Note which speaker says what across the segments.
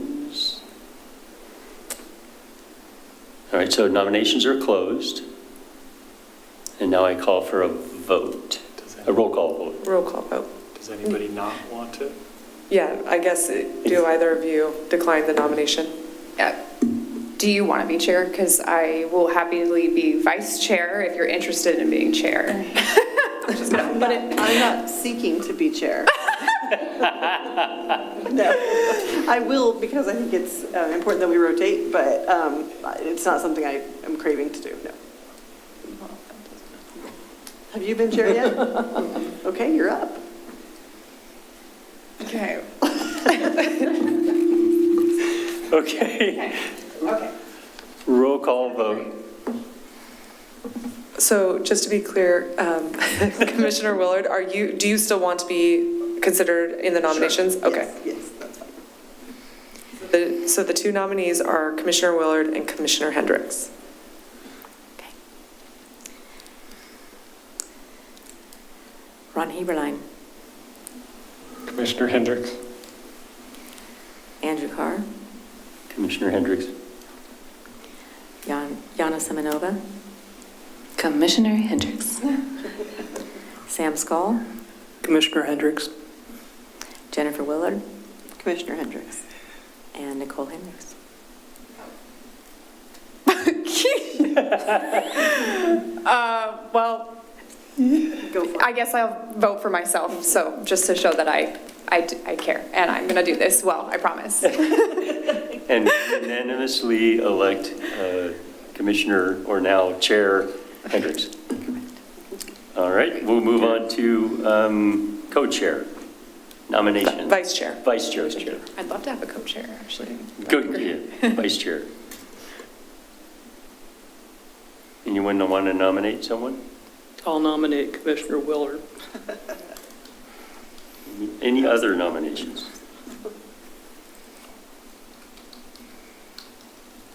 Speaker 1: Nominations. All right, so nominations are closed. And now I call for a vote,
Speaker 2: Does
Speaker 1: a
Speaker 2: any-
Speaker 1: roll call vote.
Speaker 3: Roll call vote.
Speaker 2: Does anybody not want it?
Speaker 3: Yeah, I guess, uh, do either of you decline the nomination?
Speaker 4: Uh, Do you want to be chair? Because I will happily be vice chair if you're interested in being chair.
Speaker 5: But I'm not seeking to be chair. No, I will because I think it's uh, important that we rotate, but um, it's not something I am craving to do, no. Have you been chair yet? Okay, you're up.
Speaker 4: Okay.
Speaker 1: Okay,
Speaker 4: Okay.
Speaker 1: roll call vote.
Speaker 3: So just to be clear, um, Commissioner Willard, are you, do you still want to be considered in the nominations? Okay.
Speaker 5: Yes, Yes, that's fine.
Speaker 3: The- So the two nominees are Commissioner Willard and Commissioner Hendricks.
Speaker 6: Ron Heberlein,
Speaker 2: Commissioner Hendricks?
Speaker 6: Andrew Carr,
Speaker 1: Commissioner Hendricks.
Speaker 6: Jan- Yana Semenova,
Speaker 7: Commissioner Hendricks.
Speaker 6: Sam Skoll,
Speaker 8: Commissioner Hendricks,
Speaker 6: Jennifer Willard,
Speaker 5: Commissioner Hendricks.
Speaker 6: and Nicole Hendricks.
Speaker 4: Uh, Well,
Speaker 5: Go for it.
Speaker 4: I guess I'll vote for myself, so just to show that I, I d- I care, and I'm going to do this well, I promise.
Speaker 1: And unanimously elect uh, Commissioner, or now Chair Hendricks. All right, we'll move on to um, co-chair nomination.
Speaker 3: Vice Chair.
Speaker 1: Vice Chair. Chair.
Speaker 4: I'd love to have a co-chair, actually.
Speaker 1: Good, yeah, Vice Chair. Anyone want to nominate someone?
Speaker 8: I'll nominate Commissioner Willard.
Speaker 1: Any other nominations?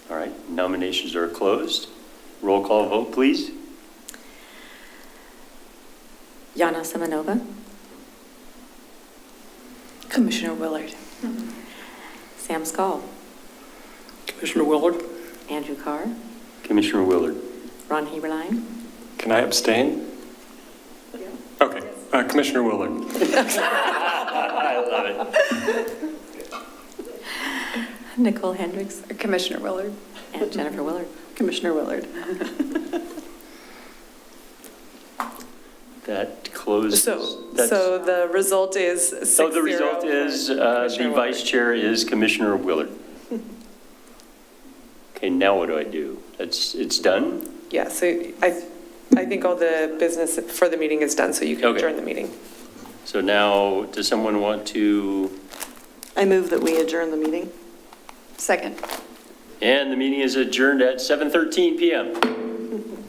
Speaker 1: All right, nominations are closed. Roll call vote, please.
Speaker 6: Yana Semenova,
Speaker 7: Commissioner Willard.
Speaker 6: Sam Skoll,
Speaker 8: Commissioner Willard?
Speaker 6: Andrew Carr,
Speaker 1: Commissioner Willard.
Speaker 6: Ron Heberlein,
Speaker 2: Can I abstain? Okay, Uh, Commissioner Willard.
Speaker 1: I love it.
Speaker 6: Nicole Hendricks,
Speaker 4: Commissioner Willard.
Speaker 6: and Jennifer Willard.
Speaker 5: Commissioner Willard.
Speaker 1: That closes.
Speaker 3: So,
Speaker 1: that's-
Speaker 3: so the result is six
Speaker 1: So
Speaker 3: zero.
Speaker 1: the result is, uh,
Speaker 3: Commissioner
Speaker 1: the
Speaker 3: Willard.
Speaker 1: vice chair is Commissioner Willard. Okay, now what do I do? It's, it's done?
Speaker 3: Yeah, so I, I think all the business for the meeting is done, so you can
Speaker 1: Okay.
Speaker 3: adjourn the meeting.
Speaker 1: So now, does someone want to,
Speaker 5: I move that we adjourn the meeting.
Speaker 4: Second.
Speaker 1: and the meeting is adjourned at 7:13 PM.